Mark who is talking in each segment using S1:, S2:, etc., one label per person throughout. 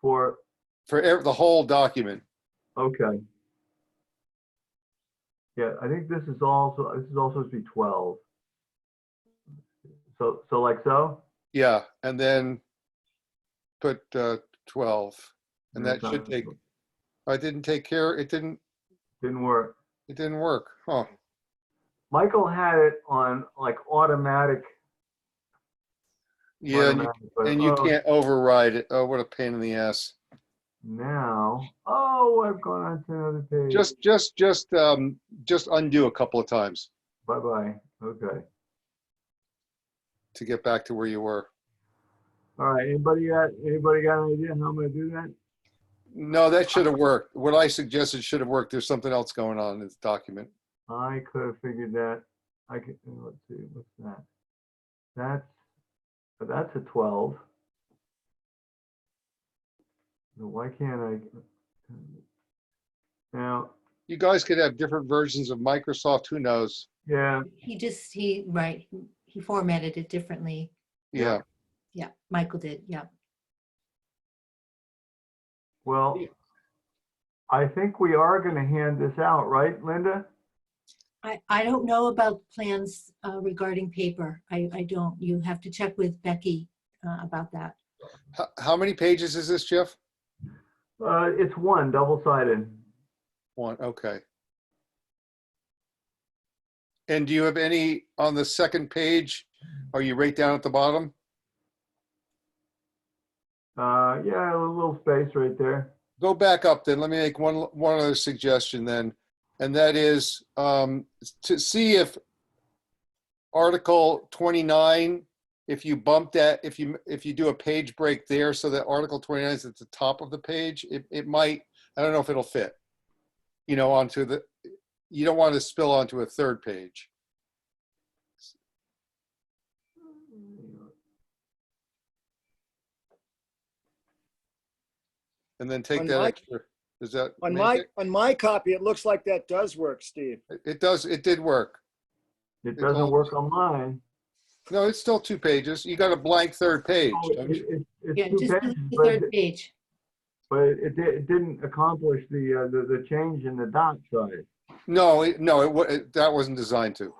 S1: for,
S2: for ev- the whole document.
S1: okay. Yeah, I think this is also, this is also supposed to be 12. So, so like so?
S2: Yeah, and then put uh, 12. And that should take, I didn't take care, it didn't,
S1: Didn't work.
S2: it didn't work. Huh.
S1: Michael had it on like automatic.
S2: Yeah, and you-
S1: automatic, but,
S2: and you
S1: oh,
S2: can't override it. Oh, what a pain in the ass.
S1: Now, oh, I've gone on to another page.
S2: Just, just, just, um, just undo a couple of times
S1: Bye-bye. Okay.
S2: to get back to where you were.
S1: All right, anybody got, anybody got an idea how I'm gonna do that?
S2: No, that should have worked. What I suggested should have worked. There's something else going on in this document.
S1: I could have figured that, I could, uh, let's see, what's that? That's, but that's a twelve. Now, Why can't I? uh, Now,
S2: You guys could have different versions of Microsoft. Who knows?
S1: yeah,
S3: He just, he, right, he formatted it differently.
S2: Yeah.
S3: Yeah, Michael did, yeah.
S1: well,
S2: Yeah.
S1: I think we are gonna hand this out, right, Linda?
S3: I, I don't know about plans uh, regarding paper. I, I don't. You have to check with Becky uh, about that.
S2: H- how many pages is this, Jeff?
S1: Uh, it's one, double-sided.
S2: One. Okay. And do you have any on the second page? Are you right down at the bottom?
S1: Uh, yeah, a little space right there.
S2: go back up then. Let me make one one other suggestion then, and that is um, to see if Article 29, if you bump that, if you if you do a page break there, so that Article 29 is at the top of the page, it it might. I don't know if it'll fit. You know, onto the. You don't want to spill onto a third page. And then take
S4: On
S2: that
S4: my-
S2: extra. Does that
S4: On
S2: make
S4: my,
S2: it?
S4: on my copy, it looks like that does work, Steve.
S2: It does. It did work.
S1: It
S2: It's
S1: doesn't
S2: all-
S1: work on mine.
S2: No, it's still two pages. You got a blank third page.
S1: Oh,
S2: don't
S1: it-
S2: you?
S1: it-
S3: Yeah,
S1: It's two
S3: just
S1: pages,
S3: delete the
S1: but
S3: third
S1: it-
S3: page.
S1: but it di- it didn't accomplish the, uh, the, the change in the dot size.
S2: No, it- no, it, wa- it, that wasn't designed to.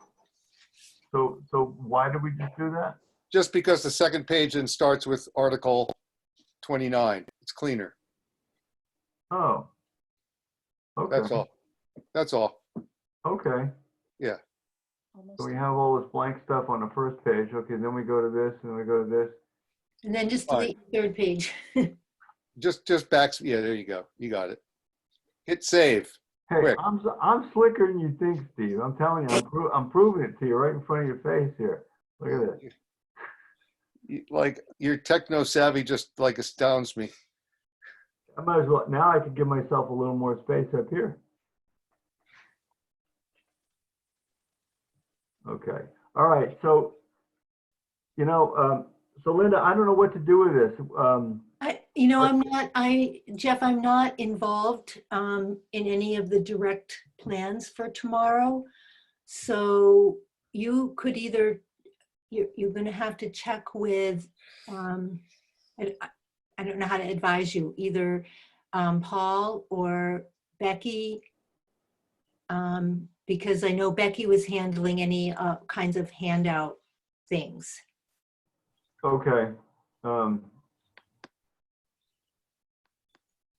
S1: So, so why did we just do that?
S2: Just because the second page then starts with Article 29. It's cleaner.
S1: Oh. Okay.
S2: That's all. That's all.
S1: Okay, so we have all this blank stuff on the first page. Okay, then we go to this and we go to this.
S3: And then just
S2: Fine.
S3: delete the third page.
S2: Just, just back, yeah, there you go. You got it. Hit save.
S1: Hey,
S2: Quick.
S1: I'm, s- I'm slicker than you think, Steve. I'm telling you, I'm pro- I'm proving it to you right in front of your face here. Look at this.
S2: You- Like, your techno savvy just like astounds me.
S1: I might as well, now I could give myself a little more space up here. Okay, all right, so, you know, um, so Linda, I don't know what to do with this. Um,
S3: I, you know,
S1: Or-
S3: I'm not, I, Jeff, I'm not involved um, in any of the direct plans for tomorrow. So you could either, you're, you're gonna have to check with, um, I, I- I don't know how to advise you, either um, Paul or Becky. um, Because I know Becky was handling any uh, kinds of handout things.
S1: Okay, um,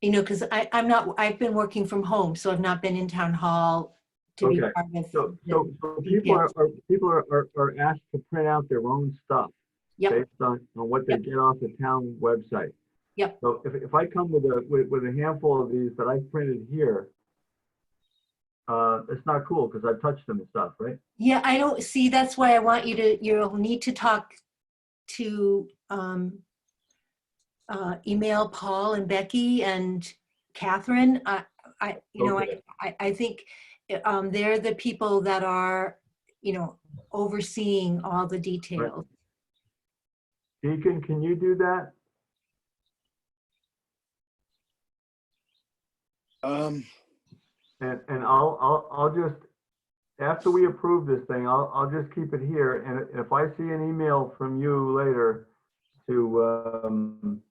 S3: You know, because I, I'm not, I've been working from home, so I've not been in town hall to be
S1: Okay.
S3: part
S1: so,
S3: of.
S1: so,
S3: the-
S1: so people are,
S3: Yes.
S1: are, people are, are- are asked to print out their own stuff.
S3: Yep.
S1: Based on, on what they
S3: Yep.
S1: get off the town website.
S3: Yep.
S1: So if, if I come with a, with, with a handful of these that I printed here, uh, it's not cool, because I touched them and stuff, right?
S3: Yeah, I don't, see, that's why I want you to, you'll need to talk to, um, uh, email Paul and Becky and Catherine. I, I, you know, I,
S1: Okay.
S3: I, I think, uh, um, they're the people that are, you know, overseeing all the details.
S1: Deacon, can you do that?
S4: Um,
S1: And, and I'll, I'll, I'll just, after we approve this thing, I'll, I'll just keep it here, and if I see an email from you later to, um,